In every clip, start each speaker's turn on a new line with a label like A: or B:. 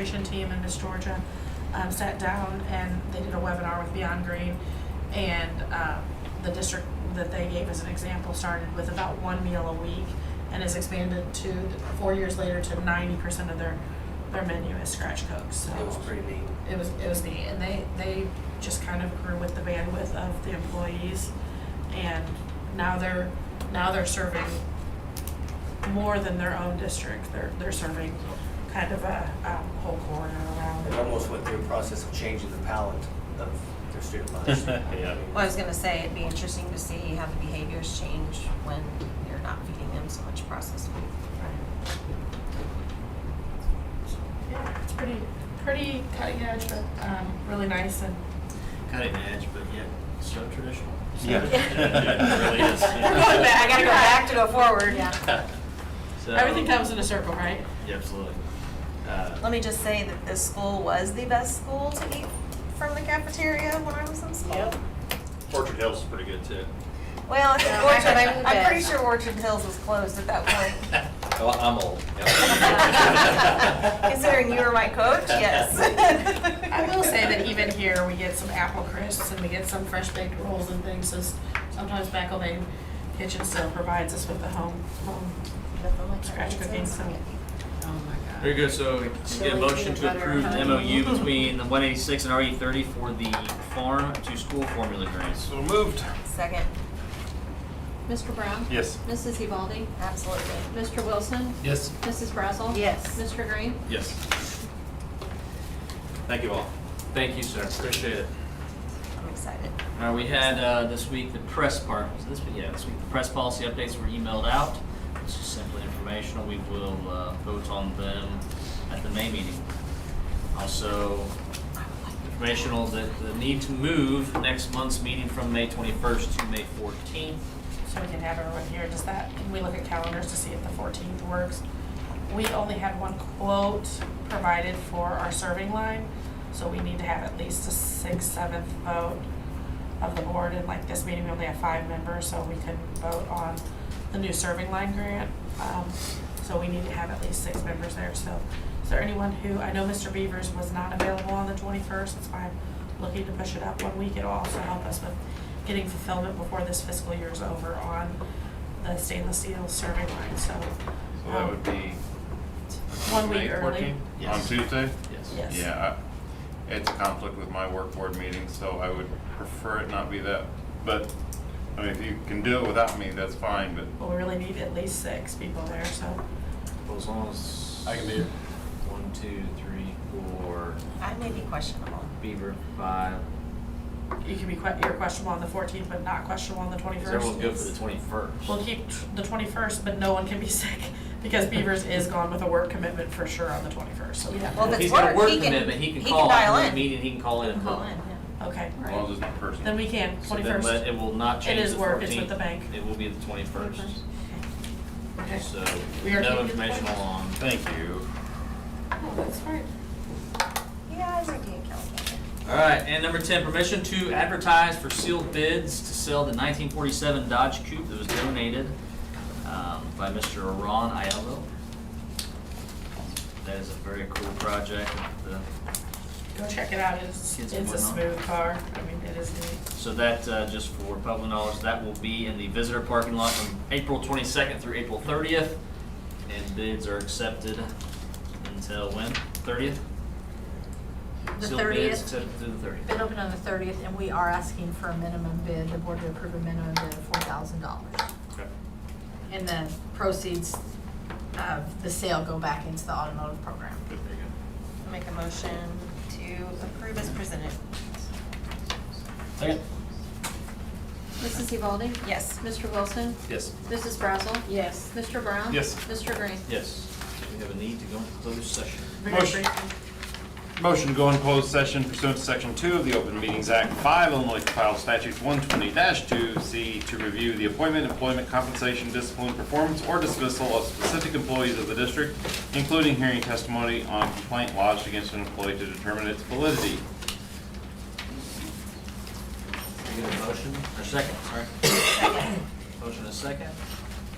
A: Education team and Miss Georgia um, sat down and they did a webinar with Beyond Green. And um, the district that they gave as an example started with about one meal a week and has expanded to, four years later, to ninety percent of their, their menu is scratch cooks, so
B: It was pretty neat.
A: it was it was neat, and they they just kind of grew with the bandwidth of the employees, and now they're now they're serving more than their own district. They're they're serving kind of a um, whole corridor
B: It
A: around.
B: almost went through a process of changing the palette of their student lives.
C: Yeah.
D: Well, I was gonna say, it'd be interesting to see how the behaviors change when you're not feeding them so much processed food.
A: So, yeah, it's pretty pretty cutting edge, but um, really nice and
E: cutting edge, but yet so traditional.
C: Yeah.
E: Yeah, it really is.
D: We're going back, I gotta go back to go forward, yeah.
E: So-
A: everything comes in a circle, right?
E: Yeah, absolutely. Uh,
D: Let me just say that this school was the best school to eat from the cafeteria when I was in school.
C: Orchard Hills is pretty good too.
D: Well, I think
F: Yeah, I
D: Orchard,
F: had my
D: I'm,
F: own
D: I'm
F: bed.
D: pretty sure Orchard Hills was closed at that point.
B: Oh, I'm old.
D: Considering you were my coach, yes.
A: I will say that even here, we get some apple crisps and we get some fresh baked rolls and things, so s- sometimes Back Lane Kitchen still provides us with the home, home scratch cooking, so.
E: Very good, so get a motion to approve the MOU between the one eighty-six and RE thirty for the farm to school formula grants.
C: So moved.
D: Second,
F: Mr. Brown?
C: Yes.
F: Mrs. Evaldi?
D: absolutely.
F: Mr. Wilson?
C: Yes.
F: Mrs. Brazel?
D: Yes.
F: Mr. Green?
C: Yes. Thank you all.
E: Thank you, sir, appreciate it.
D: I'm excited.
E: Uh, we had, uh, this week, the press part, was this week, yeah, this week, the press policy updates were emailed out. It's just simply informational, we will, uh, vote on them at the May meeting. Also, informational that the need to move next month's meeting from May twenty-first to May fourteenth.
A: So we can have everyone here, does that, can we look at calendars to see if the fourteenth works? We only had one quote provided for our serving line, so we need to have at least a six, seventh vote of the board, and like this meeting, we only have five members, so we couldn't vote on the new serving line grant. Um, so we need to have at least six members there, so is there anyone who, I know Mr. Beavers was not available on the twenty-first, that's why I'm looking to push it up one week, it'll also help us with getting fulfillment before this fiscal year is over on the stainless steel serving line, so.
G: So that would
A: um,
G: be
A: One
G: May
A: week early.
G: 14th? on
E: Yes.
G: Tuesday?
E: Yes.
A: Yes.
G: Yeah, I- it's a conflict with my work board meeting, so I would prefer it not be that. But, I mean, if you can do it without me, that's fine, but
A: But we really need at least six people there, so.
E: Well, as long as.
C: I can be here.
E: One, two, three, four,
D: I may be questionable.
E: Beaver, five.
A: You can be que- you're questionable on the fourteenth, but not questionable on the twenty-first.
E: Is everyone good for the twenty-first?
A: We'll keep tr- the twenty-first, but no one can be sick because Beavers is gone with a work commitment for sure on the twenty-first, so we have.
D: Well, if
E: If
D: it's
E: he's got a
D: work,
E: work
D: he can-
E: commitment, he can
D: he can
E: call
D: dial
E: after the
D: in.
E: meeting, he can call in and
D: Call
E: voall
D: in, yeah.
A: Okay,
G: as long as
A: right.
G: it's not personal.
A: Then we can,
E: So then
A: twenty-first.
E: let- It will not change
A: is
E: the
A: work, it's with
E: 14th.
A: the bank.
E: It will be the twenty-first,
A: Okay.
E: so
A: We are
E: no
A: keeping the
E: informational on.
C: Thank you.
A: Oh, that's right.
D: Yeah, I was thinking of California.
E: All right, and number ten, permission to advertise for sealed bids to sell the nineteen forty-seven Dodge Coupe that was donated um, by Mr. Ron Aiello. That is a very cool project. The-
A: Go check it out, it's, it's
E: Kids and
A: a
E: whatnot.
A: smooth car, I mean, it is neat.
E: So that, uh, just for public knowledge, that will be in the visitor parking lot from April twenty-second through April thirtieth. And bids are accepted until when? Thirtieth?
H: The
E: Sealed bids
H: 30th.
E: accepted through the thirtieth.
H: Bid open on the thirtieth, and we are asking for a minimum bid, the board to approve a minimum bid of four thousand dollars. And the proceeds of the sale go back into the automotive program.
D: I'll Make a motion to approve as presented.
E: Second?
F: Mrs. Evaldi?
D: Yes.
F: Mr. Wilson?
C: Yes.
F: Mrs. Brazel?
H: Yes.
F: Mr. Brown?
C: Yes.
F: Mr. Green?
E: Yes. We have a need to go into closed session.
A: Very
C: Motion.
A: briefly.
G: Motion to go in closed session pursuant to Section 2 of the Open Meetings Act 5 Illinois Compiled Statutes 120-2C to review the appointment, employment, compensation, discipline, performance, or dismissal of specific employees of the district, including hearing testimony on a complaint lodged against an employee to determine its validity.
E: We get a motion, or second, sorry. Motion and a second?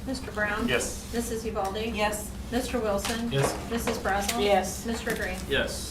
F: Mr. Brown?
G: Yes.
F: Mrs. Evaldi?
D: Yes.
H: Mr. Wilson?
I: Yes.
H: Mrs. Brazel?
J: Yes.
H: Mr. Green?
E: Yes.